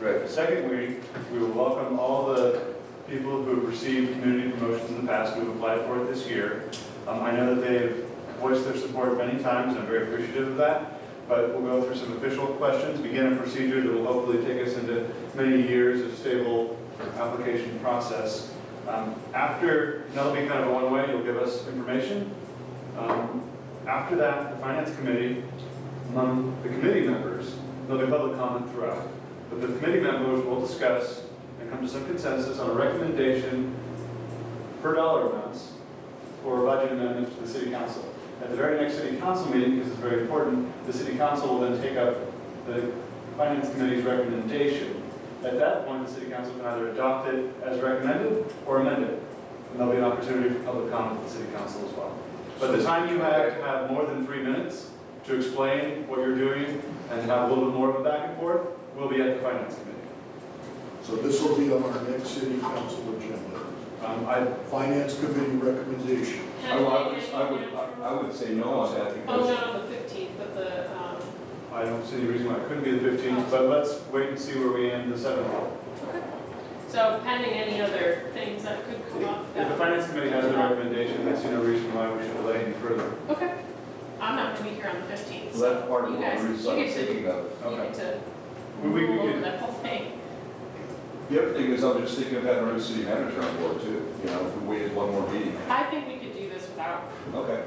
Right. Second week, we will welcome all the people who have received community promotions in the past who have applied for it this year. Um, I know that they've voiced their support many times, and I'm very appreciative of that, but we'll go through some official questions, begin a procedure that will hopefully take us into many years of stable application process. Um, After, and that'll be kind of a one-way, you'll give us information. Um, After that, the finance committee, among the committee members, there'll be public comment throughout. But the committee members will discuss and come to some consensus on a recommendation per dollar amounts for a budget amendment to the city council. At the very next city council meeting, because it's very important, the city council will then take up the finance committee's recommendation. At that point, the city council can either adopt it as recommended or amend it. And there'll be an opportunity for public comment at the city council as well. But the time you have to have more than three minutes to explain what you're doing and have a little bit more of a back and forth will be at the finance committee. So this will be on our next city council agenda. Um, I, Finance committee recommendation. I would, Oh, I would- I would, I would say no on that Oh, because not on the fifteenth, but the, um, I don't see any reason why it couldn't be the fifteenth, but let's wait and see where we end the seventh. so pending any other things that could come up. If the that- finance committee has the recommendation, I see no reason why we should delay any further. Okay, I'm not gonna be here on the fifteenth, so that's part of you what guys- we're you get to- thinking of. you get to We- we- we roll over could- that whole thing. The other thing is, I'm just thinking of having our own city manager on board too, you know, if we waited one more meeting. I think we could do this without, Okay.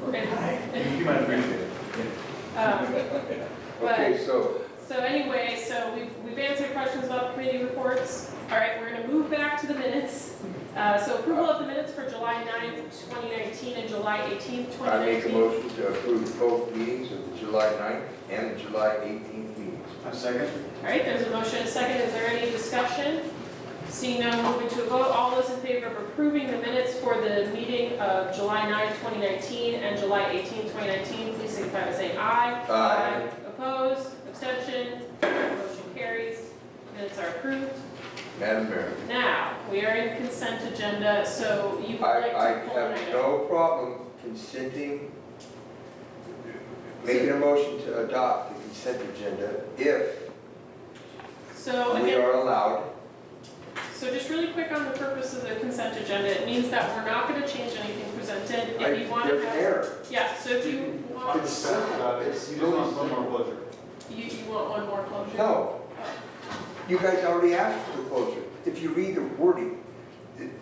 we're gonna- You might appreciate it. um, Okay, so, So anyway, so we've, we've answered questions about committee reports. All right, we're gonna move back to the minutes. Uh, so approval of the minutes for July 9th, twenty nineteen, and July eighteenth, twenty I make a nineteen. motion to approve both meetings of the July 9th and the July 18th meetings. A second? All right, there's a motion, and a second, is there any discussion? Seeing none, moving to a vote, all those in favor of approving the minutes for the meeting of July 9th, 2019 and July 18th, 2019, please signify by saying aye. Aye. Opposed, abstentions, motion carries, minutes are approved. Madam Mayor, Now, we are in consent agenda, so you would I, like I to pull an have item. no problem consenting, making a motion to adopt the consent agenda if So we again, are allowed. so just really quick on the purpose of the consent agenda, it means that we're not gonna change anything presented. If you want to There's an have, error. yeah, so if you want, Consent. Uh, You just want one more pleasure. you, you want one more closure? No, you guys already asked for the closure. If you read the wording,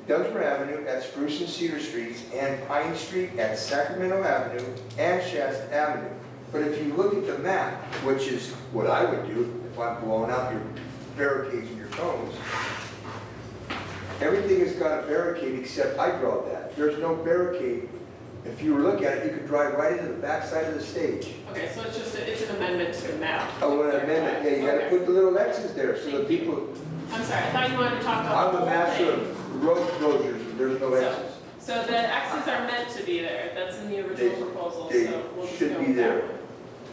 Dunsmore Avenue at Spruce and Cedar Streets and Pine Street at Sacramento Avenue and Shasta Avenue. But if you look at the map, which is what I would do if I'm blowing out your barricades and your cones, everything has got a barricade except I draw that. There's no barricade. If you look at it, you could drive right into the backside of the stage. Oh, Okay, so it's just, a- it's an amendment to the map. I want to amend it, yeah, you gotta put the little X's there, so the people, Okay. I'm sorry, I thought you wanted to talk about I'm the the whole master thing. of road closures, there's no X's. So the X's are meant to be there, that's in the original proposal, they so we'll just should go be with that there. one.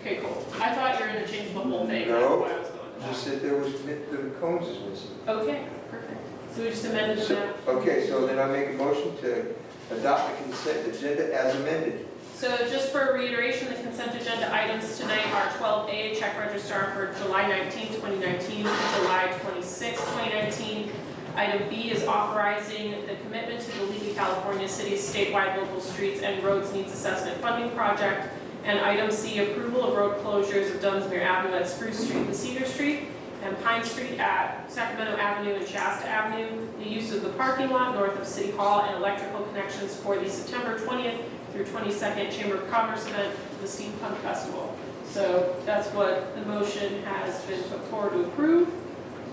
Okay, cool. I thought you were gonna change the whole thing, that's No. why I was going with that. Just that there was, the cones is missing. Okay, perfect. So we just amended the So- map. Okay, so then I make a motion to adopt the consent agenda as amended. So just for reiteration, the consent agenda items tonight are 12A, check register for July 19, 2019, to July 26, 2019. Item B is authorizing the commitment to the League of California Cities statewide local streets and roads needs assessment funding project. And item C, approval of road closures of Dunsmere Avenue at Spruce Street and Cedar Street, and Pine Street at Sacramento Avenue and Shasta Avenue, the use of the parking lot north of City Hall and electrical connections for the September 20th through 22nd Chamber of Commerce event, the Steam Punk Festival. So that's what the motion has been put forward to approve.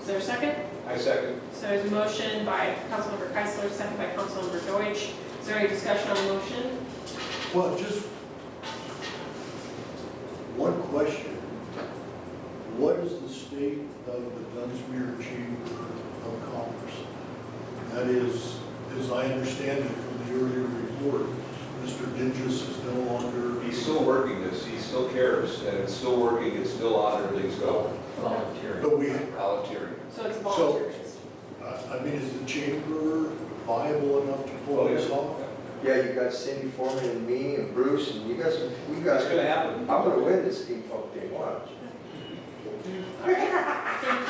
Is there a second? I second. So there's a motion by Councilmember Keisler, second by Councilmember Deutsch. Is there any discussion on the motion? Well, just one question. What is the state of the Dunsmere Chamber of Commerce? That is, as I understand it from the earlier report, Mr. Dingus is no longer. He's still working this, he still cares, and it's still working, it's still on, everything's going. Volunteering. But we, Volunteering. So it's voluntary. I I mean, is the chamber viable enough to pull this off? Yeah, you got Cindy Foreman and me and Bruce and you guys, we got, That's gonna happen. I'm gonna win this steampunk thing, watch. All right. Thank